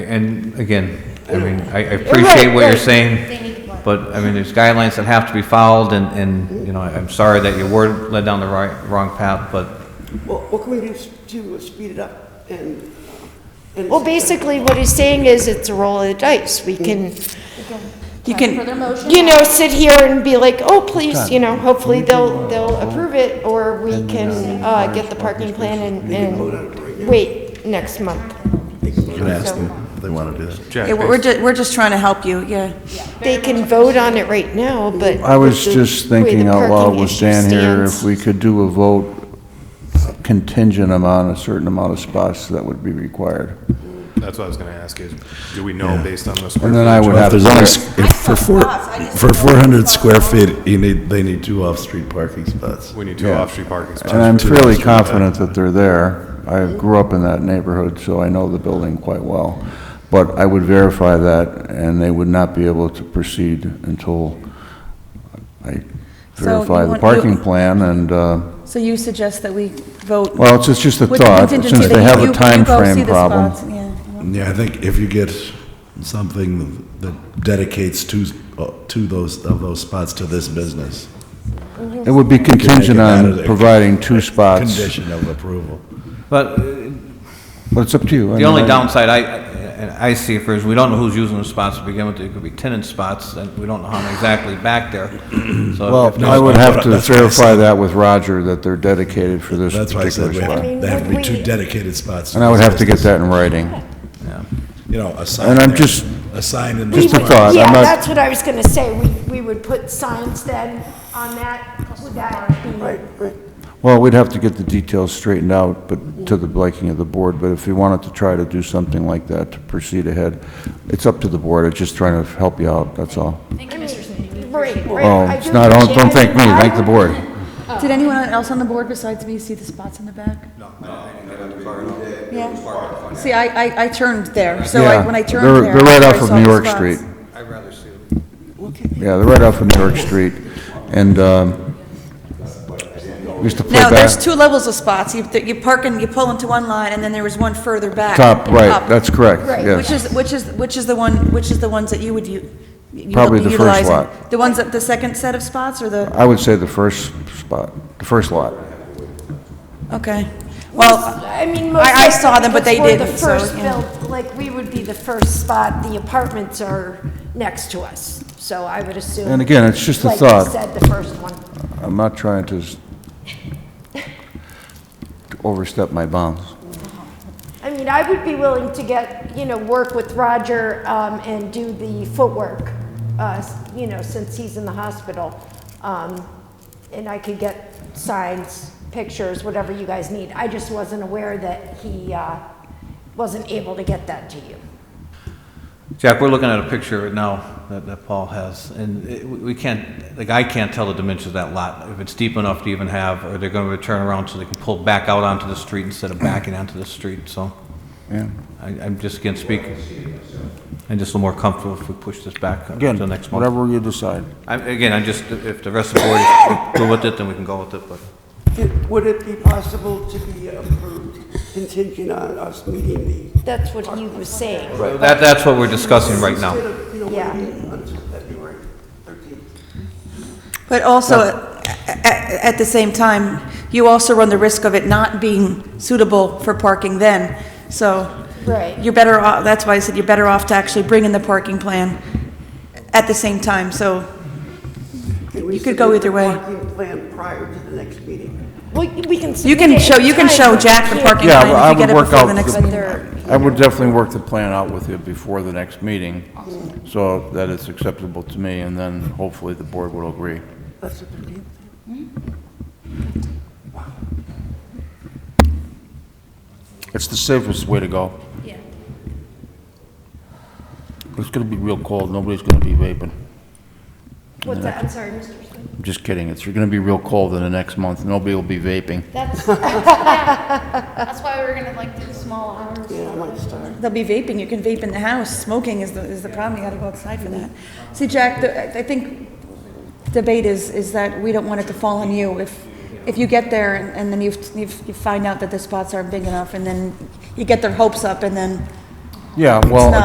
And again, I mean, I I appreciate what you're saying, but, I mean, there's guidelines that have to be followed, and, and, you know, I'm sorry that you were led down the right, wrong path, but Well, what can we do s- to speed it up and? uh, and- Well, basically, what he's saying is it's a roll of the dice. We can, You Further can, motion? you know, sit here and be like, oh, please, you know, hopefully uh, they'll, they'll approve it, or we can, uh, get the parking plan and, and wait next month. Can ask them if they want to do that. yeah, we're, ju- we're just trying to help you, yeah. They can vote on it right now, but. I was with the just way the thinking out loud parking with issue Dan here, stands- if we could do a vote contingent amount, a certain amount of spots that would be required. That's what I was gonna ask is, do we know based on the square? And then I would footage? have Well, to. if put- there's if saw For four, spots, I just for didn't know four hundred spots. square feet, you need, they need two off-street parking spots. any- We need two Yeah. off-street parking spots. And I'm fairly confident that they're there. I grew up in that neighborhood, so I know the building quite well. But I would verify that, and they would not be able to proceed until I So verify you the want- parking you- plan and, uh, So you suggest that we vote? well, it's just- just a with the thought, contingency since that they you- have you- a you time go see frame the problem. spots, yeah. Yeah, I think if you get something that dedicates two, to those, of those spots to this business. It would be Make contingent it on not a- providing two spots, Condition of approval. But but it's up to you. I the only mean, I- downside I, and I see for is, we don't know who's using the spots to begin with, it could be tenant spots, and we don't know how many exactly back there, so. if Well, I there's- would have to That's what I verify that with Roger, that they're dedicated for this That's why I particular said we have, spot. to- there have to be I mean, two we- dedicated spots. And I would this have to get business. that in writing. You know, a sign. And I'm there, just- A sign in. Just a the- thought, Yeah, I'm not, that's what I was gonna say. We, we would put signs then on that. Would that be? Right, right. well, we'd have to get the details straightened out, but to the liking of the board, but if we wanted to try to do something like that to proceed ahead, it's up to the board, I'm just trying to help you out, that's all. Right, right. Oh, I it's do not, don't don't appreciate thank it. me, thank the board. Did anyone else on the board besides me see the spots in the back? No. Yeah. See, I, I, I turned there, so I, Yeah, when I turned they're- there. They're right I off saw of the New York spots. Street. Yeah, they're right off of New York Street, and, um, we used to play No, there's back, two levels of spots. You, you park and you pull into one line, and then there was one further back. top, up, right, that's correct, Which yes. is, which is, which is the one, which is the ones that you would u- you would Probably be the first utilizing? lot. The ones that, the second set of spots, or the, I would say the first spot, the first lot. okay. Well, I mean, most I- I saw them, but likely they we're the didn't, so, first yeah. built- Like, we would be the first spot, the apartments are next to us, so I would assume. And again, it's just a Like thought. you said, the first one. I'm not trying to s- to overstep my bounds. I mean, I would be willing to get, you know, work with Roger um, and do the footwork, uh, s- you know, since he's in the hospital. Um, And I could get signs, pictures, whatever you guys need. I just wasn't aware that he uh, wasn't able to get that to you. Jack, we're looking at a picture right now that, that Paul has, and it- we we can't, like, I can't tell the dimensions of that lot, if it's deep enough to even have, or they're gonna turn around so they can pull back out onto the street instead of backing onto the street, so. Yeah. I, I'm just again speaking, I'm just a little more comfortable if we push this back up to Again, the next month. whatever you decide. I'm, again, I'm just, if the rest of the board is cool with it, then we can go with it, but. It- Would it be possible to be approved contingent on us meeting the, That's what he was saying. That, that's what we're discussing right now. instead of, you know, Yeah. waiting until February 13th? but also, at, at the same time, you also run the risk of it not being suitable for parking then, so. Right. You're better off, that's why I said you're better off to actually bring in the parking plan at the same time, so. Can we You could go submit either way. the Parking plan prior to the next meeting. Well, we can. You can submit it show, you can anytime, show but Jack we the can't- parking Yeah, plan I if you get would it work before out the next the- But meeting. they're, I would definitely work the plan out with you before the next meeting, so that it's acceptable to me, and then hopefully the board will agree. That's the 13th. It's the safest way to go. Yeah. It's gonna be real cold, nobody's gonna be vaping. what's that, I'm sorry, Mr. Smith. I'm just kidding, it's gonna be real cold in the next month, nobody will be vaping. That's, That's why we were gonna like do small hours. Yeah, I might start. They'll be vaping, you can vape in the house, smoking is the, is the problem, you gotta go outside for that. See, Jack, the- I I think debate is, is that we don't want it to fall on you. If, if you get there and- and then you've, you've- you find out that the spots aren't big enough, and then you get their hopes up, and then Yeah, well, not-